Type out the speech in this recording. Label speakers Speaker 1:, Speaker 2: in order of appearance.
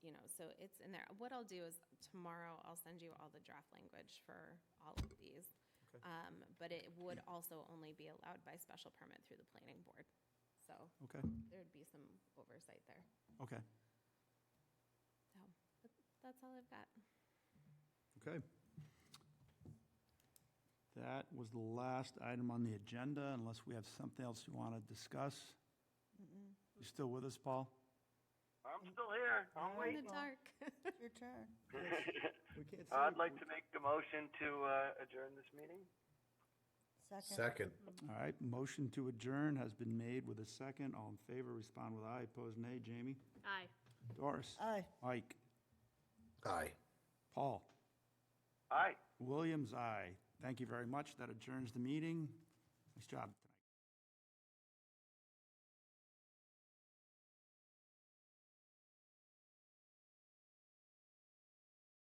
Speaker 1: so it's in there. What I'll do is tomorrow, I'll send you all the draft language for all of these.
Speaker 2: Okay.
Speaker 1: Um, But it would also only be allowed by special permit through the planning board. So
Speaker 2: Okay,
Speaker 1: there would be some oversight there.
Speaker 2: okay,
Speaker 1: So but that's all I've got.
Speaker 2: okay. That was the last item on the agenda, unless we have something else you want to discuss. You still with us, Paul?
Speaker 3: I'm still here. I'm
Speaker 1: In the
Speaker 3: waiting.
Speaker 1: dark.
Speaker 4: Your turn.
Speaker 2: We can't
Speaker 3: I'd like to make a motion to uh, adjourn this meeting.
Speaker 5: Second.
Speaker 4: Second.
Speaker 2: All right, motion to adjourn has been made with a second. All in favor, respond with aye. Opposed, nay. Jamie?
Speaker 6: Aye.
Speaker 2: Doris?
Speaker 4: Aye.
Speaker 2: Mike?
Speaker 5: Aye.
Speaker 2: Paul?
Speaker 3: Aye.
Speaker 2: Williams, aye. Thank you very much. That adjourns the meeting. Nice job.